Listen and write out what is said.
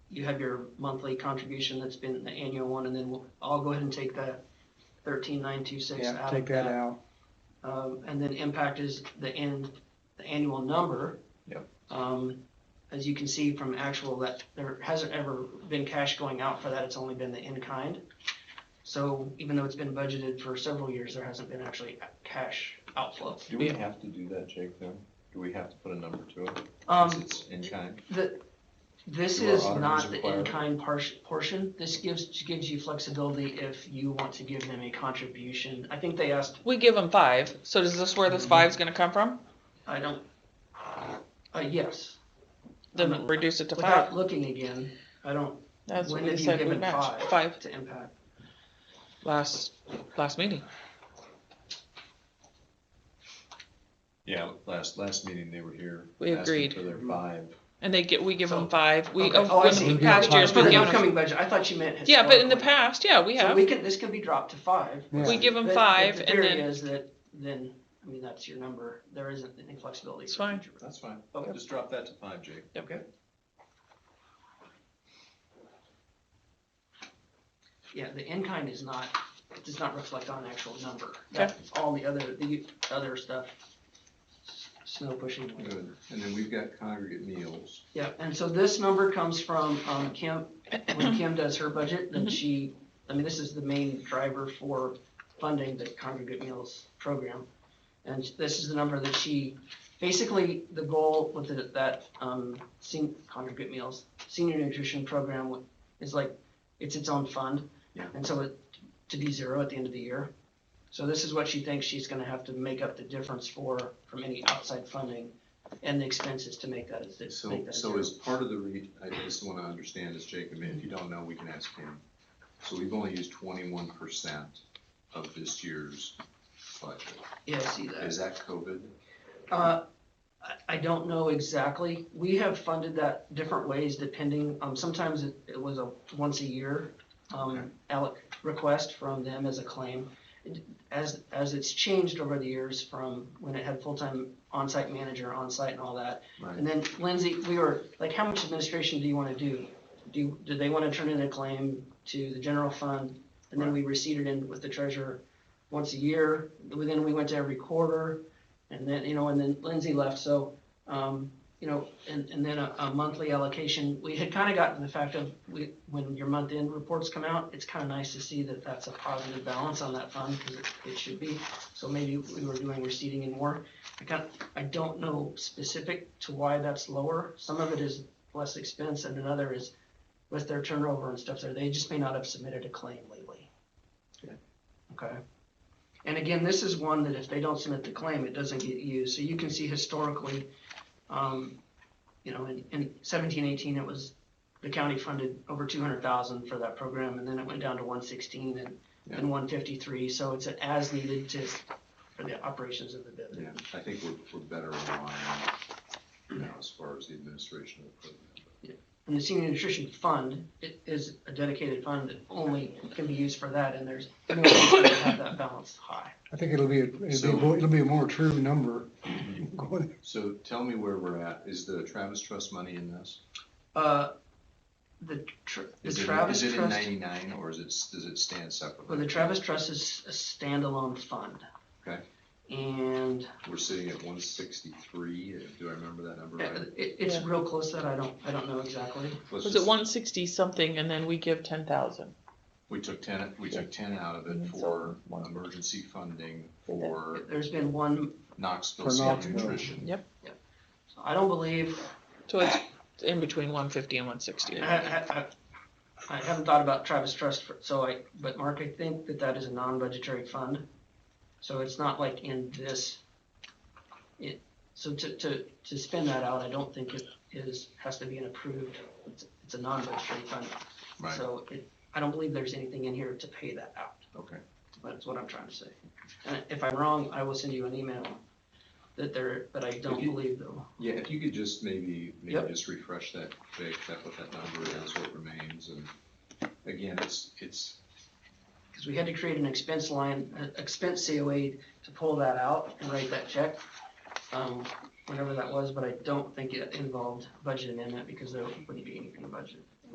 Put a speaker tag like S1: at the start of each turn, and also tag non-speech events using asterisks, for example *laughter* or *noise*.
S1: you have your monthly contribution that's been the annual one, and then we'll, I'll go ahead and take that thirteen nine two six
S2: Yeah,
S1: out of
S2: take that
S1: that.
S2: out.
S1: Um, and then impact is the end, the annual number.
S3: Yep.
S1: Um, as you can see from actual that there hasn't ever been cash going out for that, it's only been the in kind. So even though it's been budgeted for several years, there hasn't been actually a- cash outflow.
S3: Do we have to do that, Jake, then? Do we have to put a number to it? Since
S1: Um,
S3: It's in kind?
S1: this
S3: do our
S1: is
S3: auditors
S1: not the
S3: require-
S1: in kind portion, this gives, gives you flexibility if you want to give them a contribution. I think they asked,
S4: We give them five, so does this where
S1: Mm-hmm.
S4: this five's gonna come from?
S1: I don't, uh, yes,
S4: Then reduce it to
S1: without
S4: five.
S1: looking again, I don't,
S4: That's what
S1: When
S4: we
S1: have you
S4: said we
S1: given
S4: matched,
S1: five?
S4: five,
S1: to impact.
S4: last, last meeting.
S3: Yeah, last, last meeting, they were here.
S4: We
S3: asking
S4: agreed.
S3: For their five.
S4: And they get, we give
S1: So-
S4: them five, we,
S1: okay.
S4: of
S1: Oh, I
S4: when-
S1: see.
S4: in past years,
S1: It's for
S4: we
S1: the
S4: give them,
S1: upcoming budget, I thought you meant.
S4: yeah, but in the
S1: historically.
S4: past, yeah, we
S1: So
S4: have,
S1: we can, this can be dropped to five.
S2: Yeah.
S4: we give them
S1: But- but
S4: five
S1: The
S4: and
S1: theory
S4: then,
S1: is that, then, I mean, that's your number, there isn't any flexibility.
S4: It's
S1: for
S4: fine.
S1: future.
S3: That's fine.
S1: Okay.
S3: Just drop that to five, Jake.
S4: Yep.
S3: Okay.
S1: Yeah, the in-kind is not, does not reflect on actual number.
S4: Okay.
S1: That's all the other, the other stuff, snow pushing.
S3: Good. And then we've got congregate meals.
S1: Yeah, and so this number comes from, um, Kim,
S3: *clears throat*
S1: when Kim does her budget,
S3: Mm-hmm.
S1: then she, I mean, this is the main driver for funding the congregate meals program. And this is the number that she, basically, the goal with the- that, um, sen- congregate meals, senior nutrition program wa- is like, it's its own fund.
S3: Yeah.
S1: And so it, to be zero at the end of the year. So this is what she thinks she's gonna have to make up the difference for, from any outside funding and the expenses to make that, to
S3: So,
S1: make that
S3: so
S1: zero.
S3: as part of the re, I just wanna understand this, Jake, I mean, if you don't know, we can ask him. So we've only used twenty-one percent of this year's budget.
S1: Yeah, I see that.
S3: Is that COVID?
S1: Uh, I, I don't know exactly. We have funded that different ways depending, um, sometimes it, it was a once a year,
S3: Okay.
S1: um, alloc, request from them as a claim. It- As, as it's changed over the years from when it had full-time on-site manager, on-site and all that.
S3: Right.
S1: And then Lindsay, we were, like, how much administration do you wanna do? Do, do they wanna turn in a claim to the general fund? And then we receded in with the treasurer once a year, then we went to every quarter. And then, you know, and then Lindsay left, so, um, you know, and, and then a, a monthly allocation, we had kinda gotten to the fact of, we, when your month end reports come out, it's kinda nice to see that that's a positive balance on that fund, cause it, it should be. So maybe we were doing receding and more, I kind, I don't know specific to why that's lower, some of it is less expense and another is with their turnover and stuff there, they just may not have submitted a claim lately.
S3: Okay.
S1: Okay? And again, this is one that if they don't submit the claim, it doesn't get used. So you can see historically, um, you know, in, in seventeen, eighteen, it was, the county funded over two hundred thousand for that program, and then it went down to one sixteen and,
S3: Yeah.
S1: and one fifty-three, so it's an as needed to, for the operations of the
S3: Yeah,
S1: business.
S3: I think we're, we're better aligned now as far as the administration of the program.
S1: And the senior nutrition fund, it is a dedicated fund that only can be used for that, and there's no reason to have that balance high.
S2: I think it'll be, a- it'll
S3: So-
S2: be, more- it'll be a more true number.
S3: So tell me where we're at. Is the Travis Trust money in this?
S1: Uh, the, tr- the
S3: Is it-
S1: Travis
S3: Is it in
S1: Trust-
S3: ninety-nine or is it, s- does it stand separately?
S1: Well, the Travis Trust is a standalone fund.
S3: Okay.
S1: And
S3: We're sitting at one sixty-three. Do I remember that number right?
S1: it, it's
S4: Yeah.
S1: real close that I don't, I don't know exactly.
S3: Let's
S4: was it
S3: just-
S4: one sixty something and then we give ten thousand?
S3: We took ten, we took ten out of it
S4: Mhm.
S3: for
S4: One.
S3: emergency funding for
S1: There's been one,
S3: Knoxville
S2: For
S3: Senior
S2: Knoxville.
S3: Nutrition.
S4: Yep.
S1: I don't believe,
S4: So it's in between one fifty and one sixty.
S1: I, I, I- I haven't thought about Travis Trust, for- so I, but Mark, I think that that is a non-budgetary fund. So it's not like in this, it, so to, to, to spin that out, I don't think it is, has to be an approved, it's, it's a non-budgetary fund.
S3: Right,
S1: So it, I don't believe there's anything in here to pay that out.
S3: okay.
S1: That's what I'm trying to say. And if I'm wrong, I will send you an email that there, but I don't
S3: If you-
S1: believe though.
S3: Yeah, if you could just maybe, maybe
S1: Yep.
S3: just refresh that, Jake, that what that number is, what remains, and again, it's, it's,
S1: Because we had to create an expense line, uh, expense COA to pull that out and write that check. Um, whenever that was, but I don't think it involved budget amendment because there wouldn't be anything budgeted.